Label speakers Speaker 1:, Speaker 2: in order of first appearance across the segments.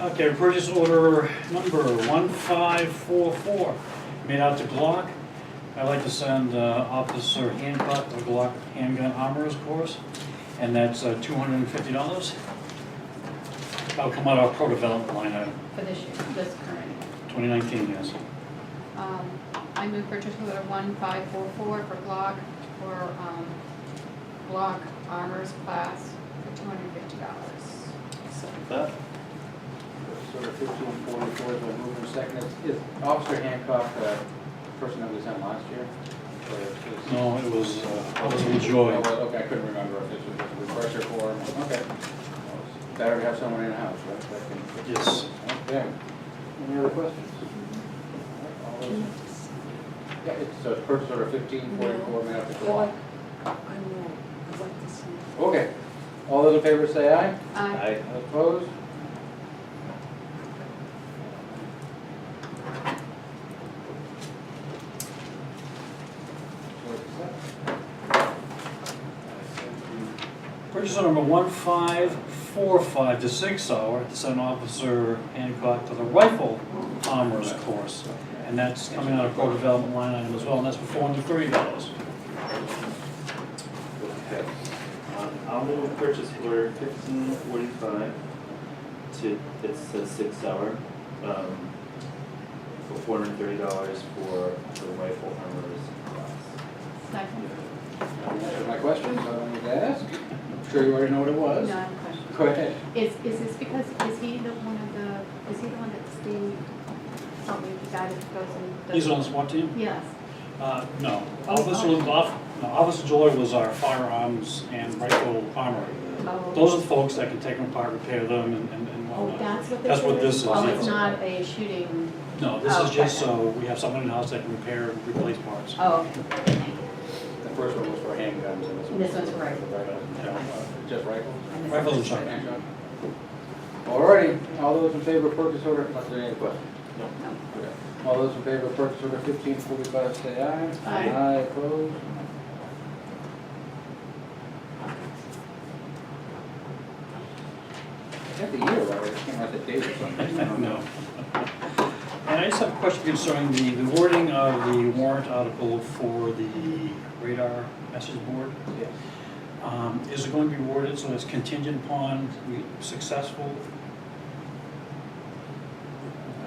Speaker 1: Okay, purchase order number 1544, made out to Glock. I'd like to send uh, Officer Hancock a Glock handgun armorer's course, and that's uh, $250. That'll come out of our pro-development line item,
Speaker 2: for this year, this current year.
Speaker 1: 2019, yes.
Speaker 2: Um, I move purchase order one five four four for Glock, for, um, Glock Armors class for two hundred fifty dollars.
Speaker 3: Second that.
Speaker 4: Sort of fifteen forty-four, the move in second, is is Officer Hancock the person that we sent last year? Or is-
Speaker 1: No, it was, uh, Officer
Speaker 4: Oh,
Speaker 1: Joy.
Speaker 4: well, Okay, I couldn't remember if this was just a refresher for him, okay. Better to have someone in-house, right? that can-
Speaker 1: Yes.
Speaker 4: Okay, any other questions? All those- Yeah, it's uh, purchase order fifteen forty-four, made up to
Speaker 5: Well,
Speaker 3: Um,
Speaker 4: Glock.
Speaker 5: I- I'm wrong. I'd like to see.
Speaker 4: Okay, all those in favor say aye?
Speaker 2: Aye.
Speaker 3: Aye.
Speaker 4: Opposed?
Speaker 1: Purchase order number 1545 to 6 hour, to send Officer Hancock to the rifle armorer's course. And that's coming out of pro development line item as well, and that's for four hundred thirty dollars.
Speaker 3: Okay. Um, I'll move purchase order fifteen forty-five to, it says six hour, um, for four hundred and thirty dollars for the rifle armors class.
Speaker 2: Second,
Speaker 4: My questions, I don't need to ask. I'm sure you already know what it was.
Speaker 2: no, I have a question.
Speaker 4: Go ahead.
Speaker 2: Is, is this because, is he the one of the, is he the one that's the, something, the guy that goes and does?
Speaker 1: He's on the SWAT team?
Speaker 2: Yes,
Speaker 1: Uh, no.
Speaker 2: Oh,
Speaker 1: Officer, Off- no, Officer Joy was our firearms and rifle armorer.
Speaker 2: oh.
Speaker 1: Those are the folks that can take them apart, repair them and, and and
Speaker 2: Oh,
Speaker 1: whatnot.
Speaker 2: that's what this
Speaker 1: That's
Speaker 2: is?
Speaker 1: what this is,
Speaker 2: Oh, it's
Speaker 1: yes.
Speaker 2: not a shooting,
Speaker 1: No, this is
Speaker 2: Oh,
Speaker 1: just
Speaker 2: okay.
Speaker 1: so we have someone in-house that can repair and replace parts.
Speaker 2: oh, okay, thank you.
Speaker 4: The first one was for handguns and this one.
Speaker 2: This one's for rifles.
Speaker 4: Just rifles?
Speaker 2: I missed
Speaker 1: Rifles
Speaker 2: it.
Speaker 1: and shotguns.
Speaker 4: Handgun. Alrighty, all those in favor of purchase order, unless there are any questions?
Speaker 2: No.
Speaker 4: Okay. All those in favor of purchase order fifteen forty-five, say aye.
Speaker 2: Aye.
Speaker 4: Aye, opposed? I got the year right, I just can't write the date or something. I don't know.
Speaker 1: No. And I just have a question concerning the the wording of the warrant article for the radar message board.
Speaker 4: Yes.
Speaker 1: Um, Is it going to be worded so it's contingent upon we- successful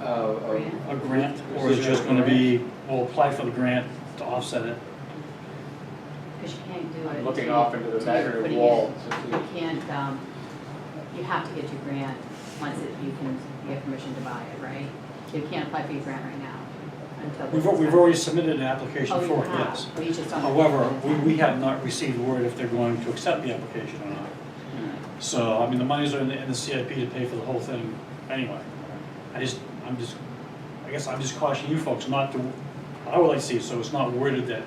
Speaker 4: Uh, uh,
Speaker 2: Grant.
Speaker 1: a grant? Or is it just going to be, we'll apply for the grant to offset it?
Speaker 2: Because you can't do it.
Speaker 4: I'm
Speaker 2: until
Speaker 4: looking off into the
Speaker 2: you
Speaker 4: back of
Speaker 2: put
Speaker 4: the
Speaker 2: it
Speaker 4: wall
Speaker 2: in.
Speaker 4: to see.
Speaker 2: You can't, um, you have to get your grant once it- you can, you have permission to buy it, right? You can't apply for your grant right now until. this
Speaker 1: We've
Speaker 2: is
Speaker 1: al- we've
Speaker 2: done.
Speaker 1: already submitted an application
Speaker 2: Oh, you
Speaker 1: for it,
Speaker 2: have.
Speaker 1: yes.
Speaker 2: Oh, you just don't.
Speaker 1: However, we we have not received word if they're going to accept the application or not. So, I mean, the monies are in the, in the CIP to pay for the whole thing anyway. I just, I'm just, I guess I'm just cautioning you folks not to, I would like to see, it so it's not worded that,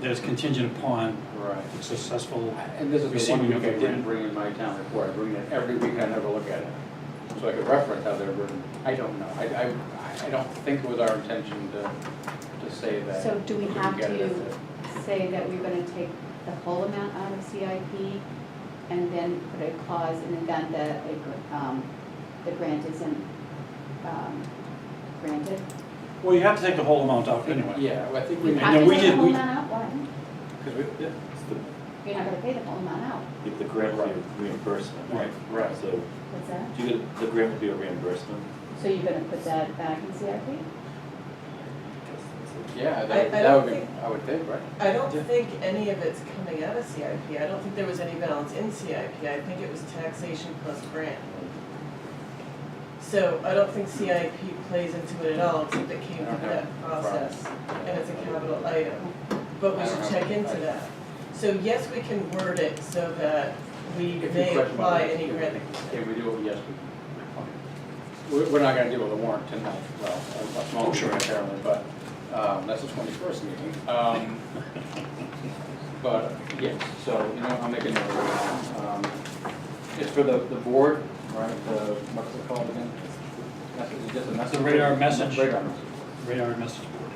Speaker 1: that it's contingent upon
Speaker 4: Right.
Speaker 1: successful.
Speaker 4: And this is the
Speaker 1: Receiving
Speaker 4: one week
Speaker 1: of
Speaker 4: I
Speaker 1: the
Speaker 4: didn't
Speaker 1: grant.
Speaker 4: bring in my town report, I bring it every week, I never look at it. So I could reference how they're written, I don't know, I, I, I don't think it was our intention to, to say that.
Speaker 2: So do we
Speaker 4: Didn't
Speaker 2: have
Speaker 4: get it as
Speaker 2: to
Speaker 4: a-
Speaker 2: say that we're gonna take the whole amount out of CIP and then put a clause in the event that a, gr- um, the grant isn't, um, granted?
Speaker 1: Well, you have to take the whole amount out anyway.
Speaker 4: Yeah, well, I think we,
Speaker 1: And
Speaker 2: Have
Speaker 1: then
Speaker 2: to
Speaker 1: we
Speaker 2: take
Speaker 1: did-
Speaker 2: the whole
Speaker 1: we-
Speaker 2: amount out, why?
Speaker 4: because we, yeah,
Speaker 3: It's the,
Speaker 2: You're not gonna pay the whole amount out,
Speaker 3: if the grant would be reimbursement.
Speaker 1: Right.
Speaker 4: right,
Speaker 3: So,
Speaker 2: what's that?
Speaker 3: do you, get- the grant would be a reimbursement?
Speaker 2: So you're gonna put that back in CIP?
Speaker 4: yeah,
Speaker 5: I- I
Speaker 4: that, that
Speaker 5: don't
Speaker 4: would be,
Speaker 5: think-
Speaker 4: I would think, right?
Speaker 5: I don't
Speaker 1: Yeah.
Speaker 5: think any of it's coming out of CIP. I don't think there was any balance in CIP. I think it was taxation plus grant. So I don't think CIP plays into it at all, except it came
Speaker 4: I don't
Speaker 5: through
Speaker 4: have
Speaker 5: that process, and it's a capital item. But we
Speaker 4: I
Speaker 5: should
Speaker 4: don't
Speaker 5: check
Speaker 4: have-
Speaker 5: into
Speaker 4: I-
Speaker 5: that. So yes, we can word it so that we
Speaker 4: If you
Speaker 5: may
Speaker 4: question my
Speaker 5: apply
Speaker 4: list,
Speaker 5: any
Speaker 4: if we-
Speaker 5: grant.
Speaker 4: If we do it, yes, we. We're, we're not gonna deal with the warrant tonight, well, a- a small
Speaker 1: Oh, sure.
Speaker 4: one apparently, but, um, that's the twenty-first meeting. Um, But, yes, so, you know, I'll make a note of it. Um, It's for the, the board, right, the, what's it called again? Message, just a message.
Speaker 1: radar message.
Speaker 4: Radar message.
Speaker 1: Radar message board.